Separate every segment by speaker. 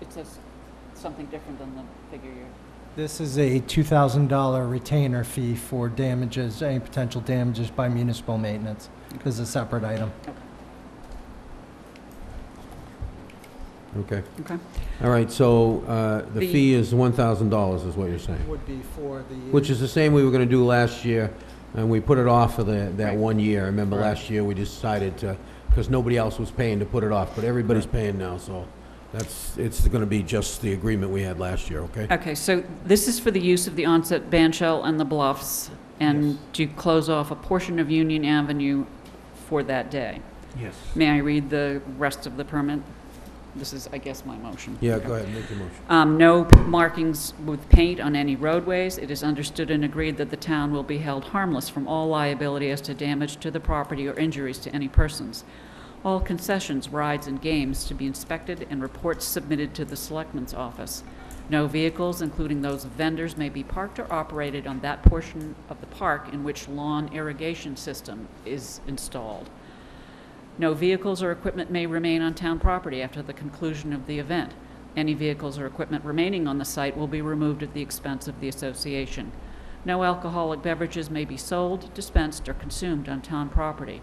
Speaker 1: It says something different than the figure you're.
Speaker 2: This is a $2,000 retainer fee for damages, any potential damages by municipal maintenance. This is a separate item.
Speaker 3: Okay.
Speaker 1: Okay.
Speaker 3: All right, so uh, the
Speaker 1: The-
Speaker 3: fee is $1,000 is what you're saying,
Speaker 2: Would be for the...
Speaker 3: which is the same we were going to do last year, and we put it off for the, that
Speaker 1: Right.
Speaker 3: one year. I remember
Speaker 2: Right.
Speaker 3: last year, we decided to, because nobody else was paying to put it off, but everybody's paying now, so that's, it's going to be just the agreement we had last year, okay?
Speaker 1: Okay, so this is for the use of the onset ban shell and the bluffs,
Speaker 3: Yes.
Speaker 1: and to close off a portion of Union Avenue for that day.
Speaker 3: Yes.
Speaker 1: May I read the rest of the permit? This is, I guess, my motion.
Speaker 3: Yeah, go ahead, make your motion.
Speaker 1: Um, No markings with paint on any roadways. It is understood and agreed that the town will be held harmless from all liability as to damage to the property or injuries to any persons. All concessions, rides, and games to be inspected and reports submitted to the Selectman's Office. No vehicles, including those of vendors, may be parked or operated on that portion of the park in which lawn irrigation system is installed. No vehicles or equipment may remain on town property after the conclusion of the event. Any vehicles or equipment remaining on the site will be removed at the expense of the association. No alcoholic beverages may be sold, dispensed, or consumed on town property.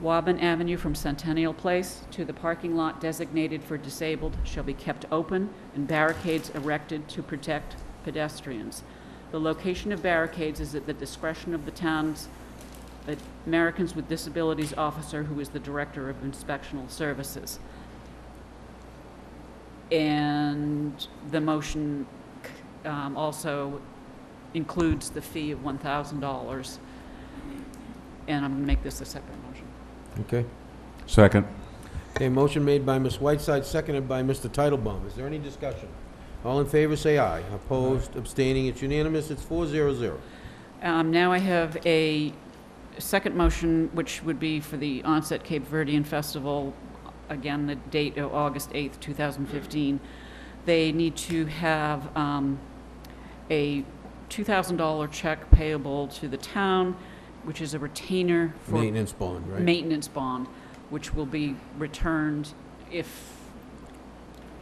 Speaker 1: Woburn Avenue from Centennial Place to the parking lot designated for disabled shall be kept open and barricades erected to protect pedestrians. The location of barricades is at the discretion of the town's the Americans with Disabilities Officer, who is the Director of Inspectional Services. And the motion um, also includes the fee of $1,000. And I'm going to make this a separate motion.
Speaker 3: Okay.
Speaker 4: Second.
Speaker 3: Okay, motion made by Ms. Whiteside, seconded by Mr. Titlebaum. Is there any discussion? All in favor, say aye. Opposed, abstaining, it's unanimous, it's 400.
Speaker 1: Um, Now I have a second motion, which would be for the onset Cape Verdean Festival, again, the date of August 8th, 2015. They need to have um, a $2,000 check payable to the town, which is a retainer for
Speaker 3: Maintenance bond, right?
Speaker 1: maintenance bond, which will be returned if,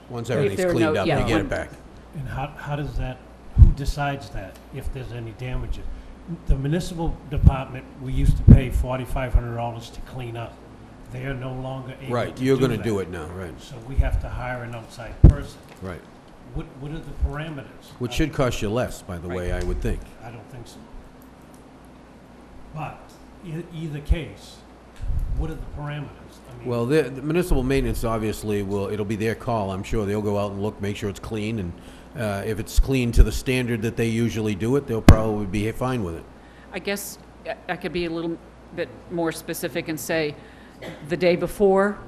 Speaker 3: Once
Speaker 1: If
Speaker 3: everything's
Speaker 1: there are no-
Speaker 3: cleaned up,
Speaker 1: yeah,
Speaker 3: they get
Speaker 1: when-
Speaker 3: it back.
Speaker 5: And how, how does that, who decides that, if there's any damages? The municipal department, we used to pay forty-five hundred dollars to clean up. They are no longer able to do that.
Speaker 3: Right, you're gonna do it now, right,
Speaker 5: So we have to hire an outside person.
Speaker 3: right.
Speaker 5: What, what are the parameters?
Speaker 3: Which should cost you less, by the way, I would think.
Speaker 5: I don't think so. But, e- either case, what are the parameters? I mean,
Speaker 3: Well, the the municipal maintenance obviously will, it'll be their call, I'm sure. They'll go out and look, make sure it's clean, and uh, if it's clean to the standard that they usually do it, they'll probably be fine with it.
Speaker 1: I guess, I- I could be a little bit more specific and say, the day before,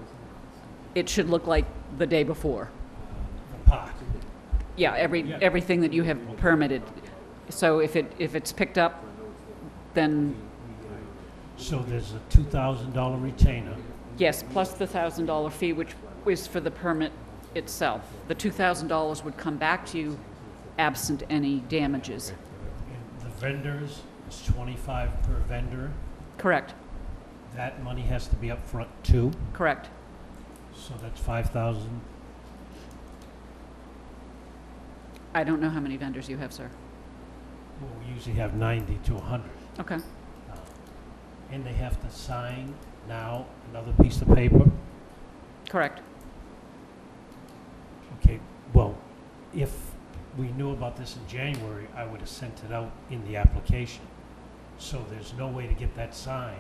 Speaker 1: it should look like the day before.
Speaker 5: The park,
Speaker 1: Yeah, every,
Speaker 5: Yeah.
Speaker 1: everything that you have permitted. So if it, if it's picked up, then
Speaker 5: so there's a two thousand dollar retainer.
Speaker 1: yes, plus the thousand dollar fee, which is for the permit itself. The two thousand dollars would come back to you absent any damages.
Speaker 5: And The vendors, it's twenty-five per vendor.
Speaker 1: Correct,
Speaker 5: That money has to be up front too,
Speaker 1: correct.
Speaker 5: so that's five thousand.
Speaker 1: I don't know how many vendors you have, sir.
Speaker 5: Well, we usually have ninety to hundred. uh,
Speaker 1: Okay,
Speaker 5: And they have to sign now another piece of paper.
Speaker 1: correct.
Speaker 5: Okay, well, if we knew about this in January, I would have sent it out in the application. So there's no way to get that signed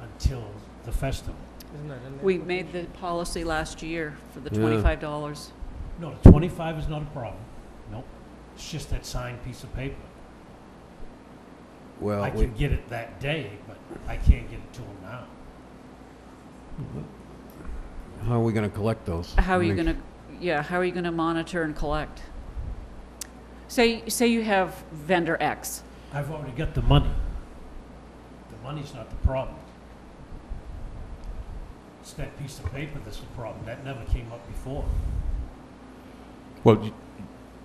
Speaker 5: until the festival.
Speaker 1: We made the policy last year for the
Speaker 3: Yeah.
Speaker 1: twenty-five dollars.
Speaker 5: No, the twenty-five is not a problem. Nope. It's just that signed piece of paper.
Speaker 3: Well,
Speaker 5: I
Speaker 3: we-
Speaker 5: can get it that day, but I can't get it to them now.
Speaker 3: how are we gonna collect those?
Speaker 1: How are you
Speaker 3: Make-
Speaker 1: gonna, yeah, how are you gonna monitor and collect? Say, say you have vendor X.
Speaker 5: I've already got the money. The money's not the problem. It's that piece of paper that's the problem. That never came up before.
Speaker 4: Well, y-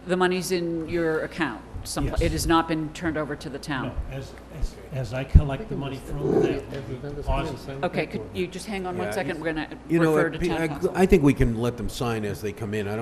Speaker 1: The money's in your account. Some,
Speaker 5: Yes.
Speaker 1: it has not been turned over to the
Speaker 5: No,
Speaker 1: town.
Speaker 5: as, as, as I collect the money from them, we deposit it.
Speaker 1: Okay, could you just hang on one
Speaker 3: Yeah,
Speaker 1: second? We're gonna
Speaker 3: You know,
Speaker 1: refer
Speaker 3: it-
Speaker 1: to town
Speaker 3: I-
Speaker 1: council.
Speaker 3: I think we can let them sign as they come in. I don't